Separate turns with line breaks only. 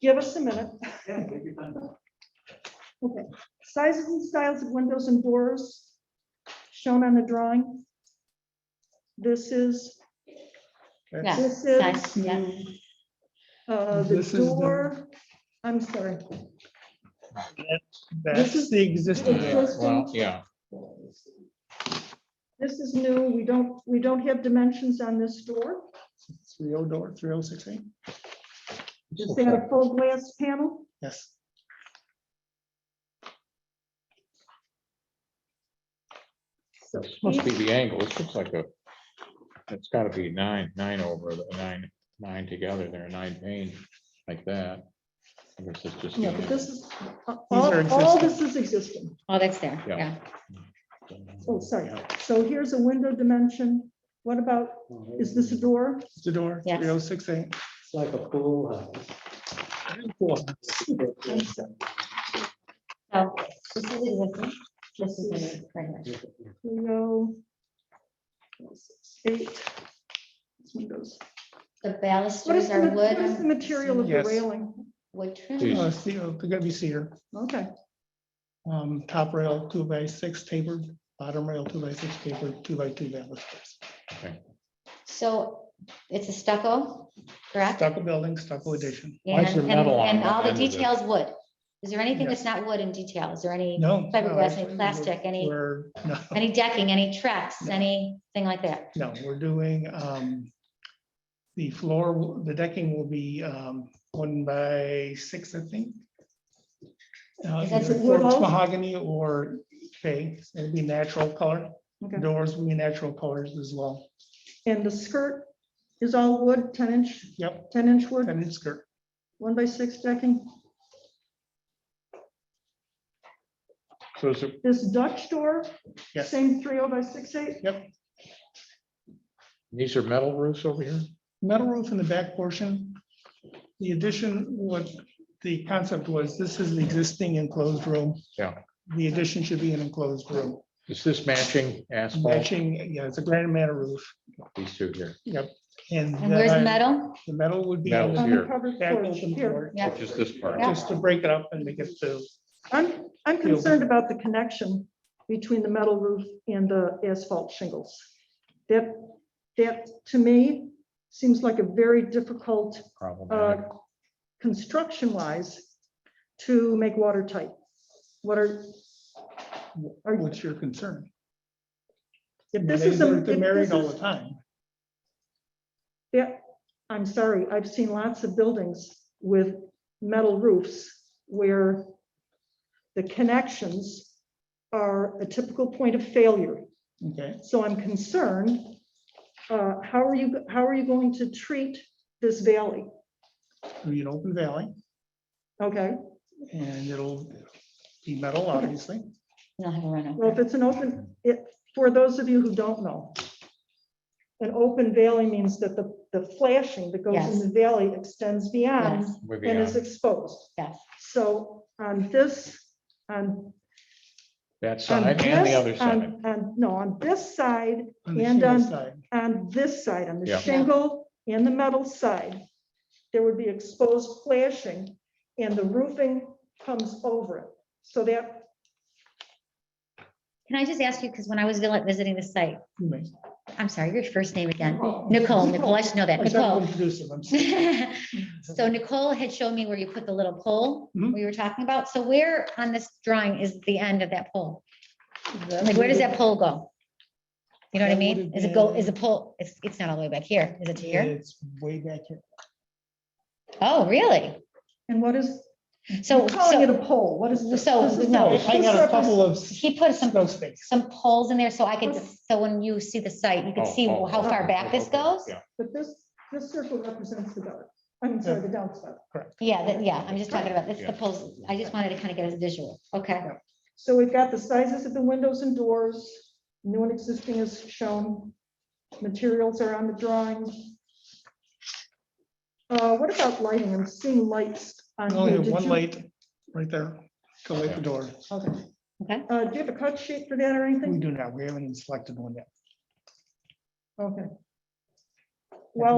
Give us a minute.
Yeah, take your time.
Okay, sizes and styles of windows and doors shown on the drawing. This is,
Yeah,
this is,
nice, yeah.
uh, the
This is the-
door, I'm sorry.
That's
is-
the existing.
Yeah, well,
yeah.
This is new. We don't, we don't have dimensions on this door.
Three oh door, three oh six eight,
Is that a full glass panel?
yes.
So
Must be
each-
the angle, it looks like a, it's gotta be nine, nine over, the nine, nine together, there are nine pane like that. This is just.
Yeah, but this is, uh,
are
all, all this is existing.
Oh, that's there,
Yeah.
yeah.
Oh, sorry. So here's a window dimension. What about, is this a door?
It's The door,
Yes.
three oh six eight.
It's like a pool house.
So this is existing, this is the right here.
Window. Eight. It's Windows.
The
What is
balusters
the,
are
ma- what is the
wood,
material of the
Yes.
railing?
wood trim.
Jeez.
Uh, steel, they're gonna be cedar,
Okay,
um, top rail, two by six tapered, bottom rail, two by six tapered, two by two balusters.
So it's a stucco, correct?
Stucco building, stucco addition.
And,
is there
and-
metal on
and
one
all the
end of it?
details wood. Is there anything
Yes.
that's not wood in detail? Is there any,
No. no,
Fiberglass, any
actually, we're-
plastic, any-
We're, no,
any decking, any tracks, anything like that?
no, we're doing, um, the floor, will- the decking will be, um, one by six, I think. Uh,
Is that
either
the wood
quartz
all?
Mahogany or fake, it'll be natural color.
okay.
Doors will be natural colors as well.
And the skirt is all wood, ten inch,
Yep,
ten inch wood,
and it's good.
one by six decking.
So is it,
This Dutch door,
Yes,
same three oh by six eight,
these are metal roofs over here?
metal roof in the back portion. The addition, what the concept was, this is the existing enclosed room.
Yeah.
The addition should be an enclosed room.
Is this matching asphalt,
Matching, yeah, it's a granite metal roof.
these two here?
Yep. And
And where's the
then
metal?
the metal would be
Metal.
on
on the
Here.
covered
the back
porch
open
here.
floor,
Yeah.
Just this part?
Yeah.
just to break it up and make it so.
I'm, I'm
Yeah.
concerned about the connection between the metal roof and the asphalt shingles. That, that to me seems like a very difficult, uh,
Problematic.
construction wise to make watertight. What are,
Or what's your concern?
if this
They-
is a.
They're
if
they're married
this
all
is-
the time.
Yeah, I'm sorry, I've seen lots of buildings with metal roofs where the connections are a typical point of failure.
Okay,
So I'm concerned, uh, how are you, how are you going to treat this valley?
it'll be an open valley
Okay,
and it'll be metal, obviously.
You'll have a
well, if
run
it's an open, it, for those of you who don't know, an open valley means that the, the flashing that goes in
Yes.
the valley extends beyond
Yes,
We're
and is
beyond-
exposed.
yes.
So on this, on.
That
on
side and the
this- Um,
other side.
on- on- no, on this side,
on the
And,
shingle
um,
side.
on this side, on the
Yeah.
shingle and the metal side, there would be exposed flashing and the roofing comes over it. So that,
Can I just ask you, because when I was vi- visiting the site,
You may.
I'm sorry, your first name again, Nicole, Nicole, I should know that,
I started to
Nicole.
introduce him, I'm sorry.
So Nicole had shown me where you put the little pole
Mm-hmm.
Mhm.
we were talking about. So where on this drawing is the end of that pole? Like, where does that pole go? You know what
That
I
would
mean?
have
Is it go,
been-
is the pole, it's, it's not all the way back here, is it to here?
It's way back here.
Oh, really?
and what is,
So,
you're calling it
so
a pole, what is this?
so,
This is
no,
not-
I got a
this
couple of
Oh, he put some,
snow space.
some poles in there so I could,
Okay.
so when you see the site, you could
Oh,
see
oh,
how far
okay,
back this
okay,
goes?
yeah.
But this, this circle represents the dark, I'm sorry, the downside.
Yeah, that, yeah, I'm just talking about, that's the
Yeah.
poles. I just wanted to kind of get a visual. Okay.
So we've got the sizes of the windows and doors, new and existing is shown, materials are on the drawing. Uh, what about lighting? I'm seeing lights on
We
here.
Only have
Did
one
you-
light right there to light the door.
Okay.
Okay.
Uh, do you have a cut sheet for that or
We
anything?
do not, we haven't even selected one yet.
Okay. Well,